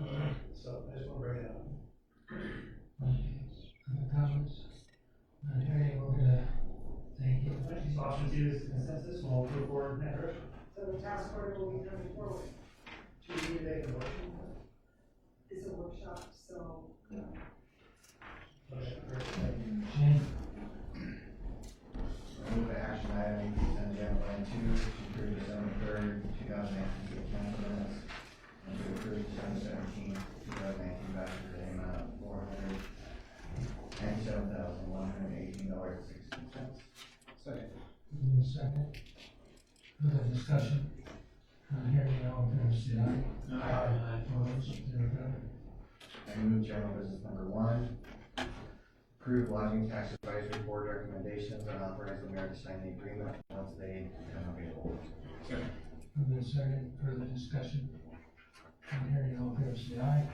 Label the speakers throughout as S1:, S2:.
S1: So I just want to bring it up.
S2: Other comments? Not hearing, we're gonna, thank you.
S1: So option two is consensus, we'll move forward in that direction.
S3: So the task order will be coming forward.
S1: Do you need to make a motion?
S3: It's a workshop, so
S1: Motion first.
S2: Jane,
S4: Move to action item consent agenda line two, to approve December third, two thousand nineteen, consent minutes. And to approve December seventeenth, two thousand nineteen, vouchers in the amount of four hundred ninety-seven thousand, one hundred eighteen dollars, sixteen cents. Second.
S2: move in second. Further discussion? Not hearing, all in favor, say aye. Opposed, there we go.
S4: I move general business number one. Approve lodging tax advisory board recommendations and authorize the mayor to sign the agreement once they become available.
S2: Move in second, further discussion? Not hearing, all in favor, say aye.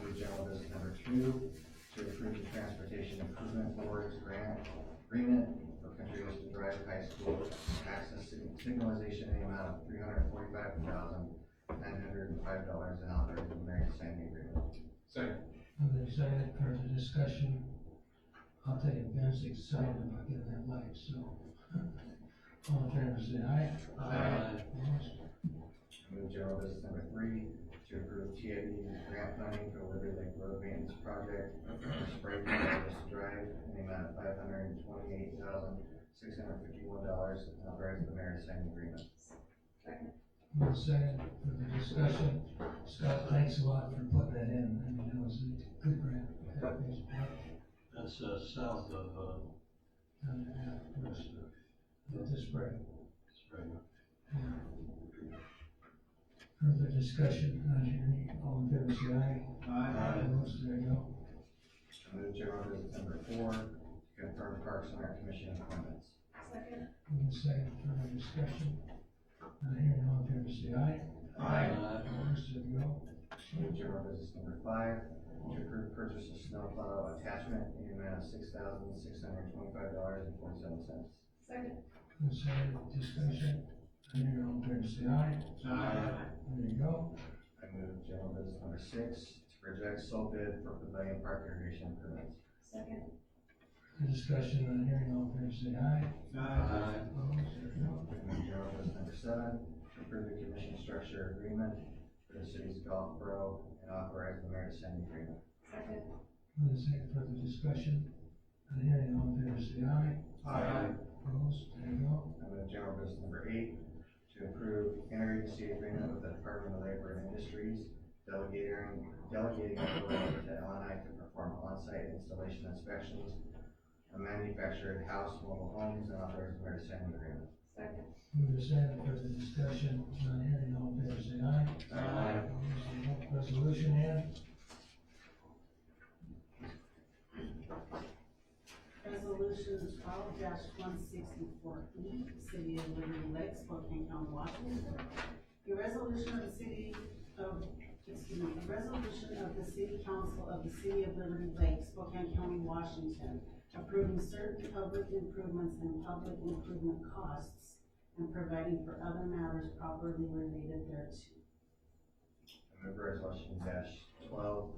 S4: Move general business number two, to approve the transportation improvement board's grant agreement for Country Ocean Drive High School access sig- signalization in the amount of three hundred forty-five thousand, nine hundred and five dollars and authorizing the mayor to sign the agreement.
S2: Move in second, further discussion? I'll tell you, Ben's excited about getting that light, so. All in favor, say aye. Opposed,
S4: Move general business number three, to approve TID grant funding for Liberty Lake Road Maintenance Project for Spring Forest Drive in the amount of five hundred and twenty-eight thousand, six hundred and fifty-one dollars and authorizing the mayor to sign the agreement.
S2: One second for the discussion. Scott, thanks a lot for putting that in. I mean, that was a good grant.
S5: That's, uh, south of, uh, Western
S2: With this break.
S5: Spring.
S2: Further discussion, not hearing any. All in favor, say aye.
S5: Aye.
S2: Opposed, there you go.
S4: I move general business number four, to confirm Parks and Rec Commission appointments.
S3: second,
S2: One second for the discussion. Not hearing, all in favor, say aye.
S5: Aye.
S2: Opposed, there you go.
S4: I Move general business number five, to approve purchase of snowplow attachment in the amount of six thousand, six hundred twenty-five dollars and forty-seven cents.
S3: second,
S2: One second for discussion. Not hearing, all in favor, say aye. There you go.
S4: I move general business number six, to reject sole bid for pavilion park irrigation permits.
S3: second,
S2: For discussion, not hearing, all in favor, say aye.
S5: Aye.
S2: Opposed, there you go.
S4: I move general business number seven, to approve the commission structure agreement for the city's golf pro and authorize the mayor to sign the agreement.
S3: second,
S2: One second for the discussion. Not hearing, all in favor, say aye. Opposed, there you go.
S4: I move general business number eight, to approve interagency agreement with the Department of Labor and Industries, delegating, delegating authority to LNI to perform on-site installation inspections of manufactured house mobile homes and authorized mayor to sign the agreement.
S3: second,
S2: Move to second for the discussion, not hearing, all in favor, say aye.
S5: Aye.
S2: Opposed, there you go. Resolution in,
S6: Resolution twelve one sixty-four E, City of Liberty Lakes, Spokane County, Washington. A resolution of the city of, excuse me, a resolution of the city council of the City of Liberty Lakes, Spokane County, Washington, approving certain public improvements and public improvement costs and providing for other matters properly related thereto.
S4: I move resolution dash twelve,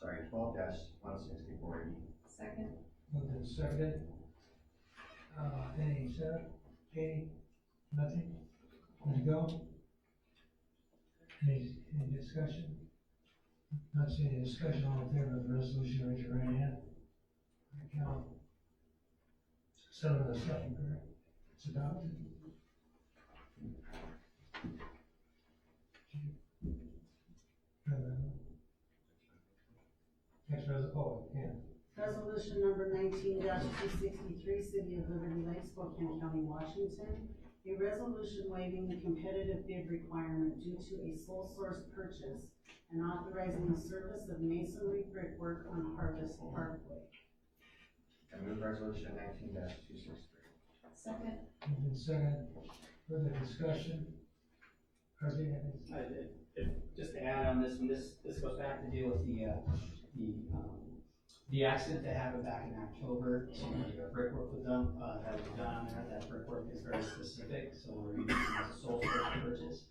S4: sorry, twelve dash one sixty-four E.
S3: second,
S2: move to second. Uh, any, sir, Katie, nothing, there you go. Any, any discussion? Not seeing any discussion, all in favor of the resolution, raise your right hand. I count. Seven of the second, correct? It's adopted. Next resolution, oh, yeah.
S6: Resolution number nineteen two sixty-three, City of Liberty Lakes, Spokane County, Washington. A resolution waiving the competitive bid requirement due to a sole source purchase and authorizing the service of masonry brickwork on Harvest Parkway.
S4: I move resolution nineteen dash two sixty-three.
S3: second,
S2: Moving second, further discussion? Harvey, any-
S7: Uh, it- it- Just to add on this one, this, this goes back to deal with the, uh, the, um, the accident that happened back in October, so the brickwork was done, uh, that was done on there, that brickwork is very specific, so we're using it as a sole source purchase.